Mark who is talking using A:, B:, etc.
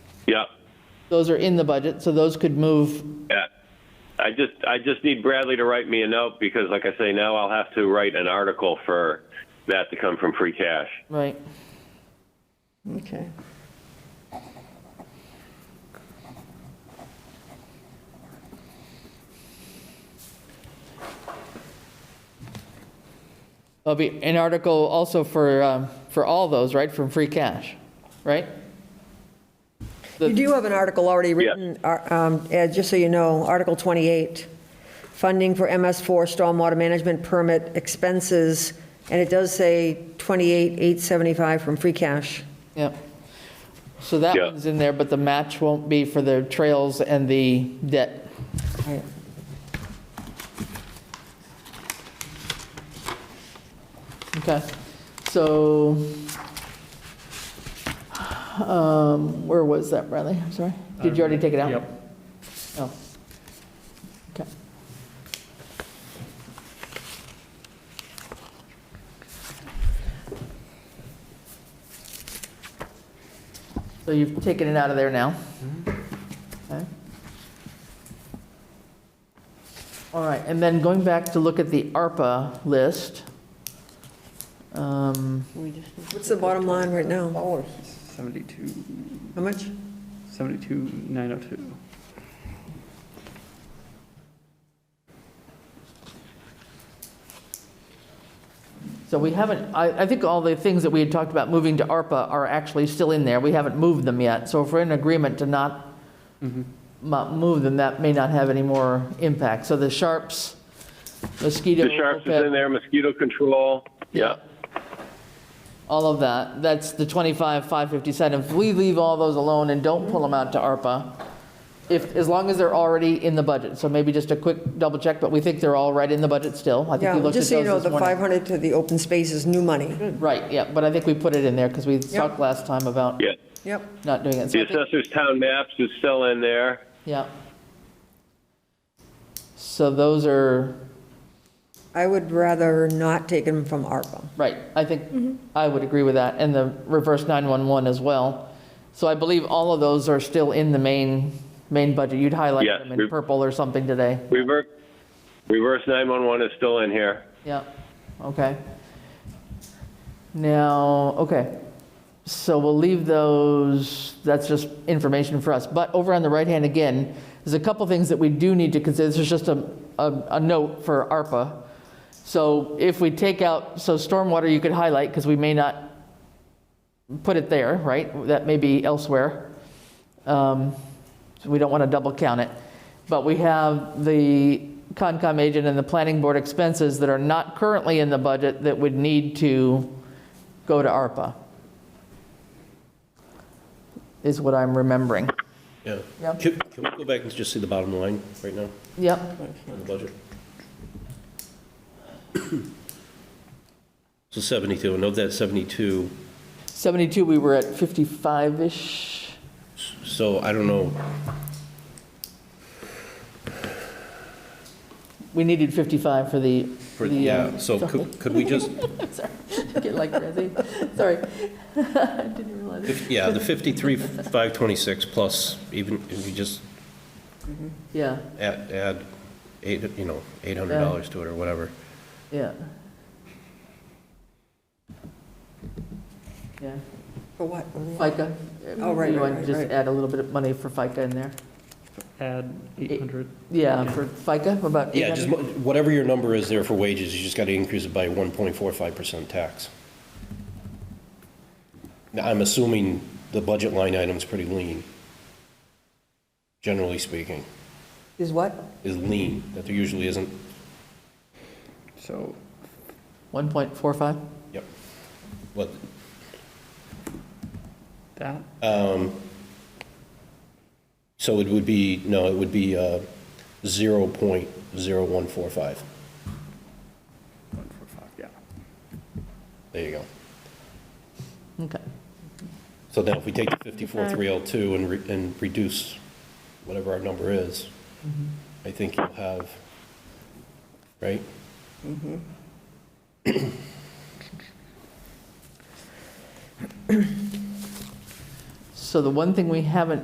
A: Yeah,
B: Those are in the budget, so those could move,
A: yeah. I just, I just need Bradley to write me a note because like I say, now I'll have to write an article for that to come from free cash.
B: right?
C: Okay.
B: There'll be an article also for, um, for all those, right, from free cash, right?
C: You do have an article already written, ar- um, Ed, just so you know, Article 28, funding for MS4 stormwater management permit expenses, and it does say 28,875 from free cash.
B: Yep. So that
A: Yeah.
B: one's in there, but the match won't be for the trails and the debt. Okay, so, um, where was that, Bradley? I'm sorry. Did you already take it out?
D: Yep.
B: Oh. Okay. So you've taken it out of there now? Okay. All right, and then going back to look at the ARPA list. um,
C: What's the bottom line right now?
D: Dollars. Seventy-two,
C: How much?
D: seventy-two, nine oh two.
B: So we haven't, I, I think all the things that we had talked about moving to ARPA are actually still in there. We haven't moved them yet. So if we're in agreement to not
A: Mm-hmm.
B: mo- move them, that may not have any more impact. So the Sharps, mosquito.
A: The Sharps is in there, mosquito control. Yeah,
B: all of that. That's the 25, 557. If we leave all those alone and don't pull them out to ARPA, if, as long as they're already in the budget. So maybe just a quick double check, but we think they're all right in the budget still. I think
C: Yeah,
B: we looked at
C: just
B: those
C: so you know,
B: this
C: the
B: morning.
C: 500 to the open space is new money.
B: Right, yeah, but I think we put it in there because we talked last time about
A: yeah.
C: Yep.
B: not doing it. So
A: The
B: I think-
A: assessor's town maps is still in there.
B: Yeah. So those are,
C: I would rather not take them from ARPA.
B: right, I think I would agree with that, and the reverse 911 as well. So I believe all of those are still in the main, main budget. You'd highlight
A: Yes,
B: them in
A: we-
B: purple or something today.
A: Reverse, reverse 911 is still in here.
B: Yeah, okay. Now, okay, so we'll leave those, that's just information for us. But over on the right-hand again, there's a couple things that we do need to consider. This is just a, a a note for ARPA. So if we take out, so stormwater you could highlight, because we may not put it there, right? That may be elsewhere. Um, so We don't want to double count it. But we have the Concom agent and the planning board expenses that are not currently in the budget that would need to go to ARPA, is what I'm remembering.
E: Yeah.
B: Yeah.
E: Can can we go back and just see the bottom line right now
B: Yep,
E: on the budget? So 72, and of that 72,
B: 72, we were at 55-ish.
E: so I don't know,
B: We needed 55 for the.
E: for-
B: the,
E: yeah,
B: um,
E: so could could we just,
B: Sorry, get like crazy, sorry. I Didn't realize. it.
E: if- yeah, the 53, 526 plus, even if you just
B: Yeah,
E: add, add eight, you know, $800 to it or whatever.
B: yeah. Yeah.
C: For what?
B: FICA.
C: Oh, right,
B: You
C: right,
B: want to
C: right,
B: Just
C: right.
B: add a little bit of money for FICA in there.
D: Add eight hundred.
B: Yeah, for FICA, about
E: Yeah, just
B: 800.
E: mo- whatever your number is there for wages, you just got to increase it by 1.45% tax. Now, I'm assuming the budget line item's pretty lean, generally speaking,
C: Is what?
E: is lean, that there usually isn't,
D: So
B: 1.45?
E: yep. What,
D: that,
E: so it would be, no, it would be uh, 0.0145.
D: one, four, five, yeah.
E: There you go.
B: Okay,
E: So now if we take the 54,302 and, re- and reduce whatever our number is, I think you'll have, right?
B: so the one thing we haven't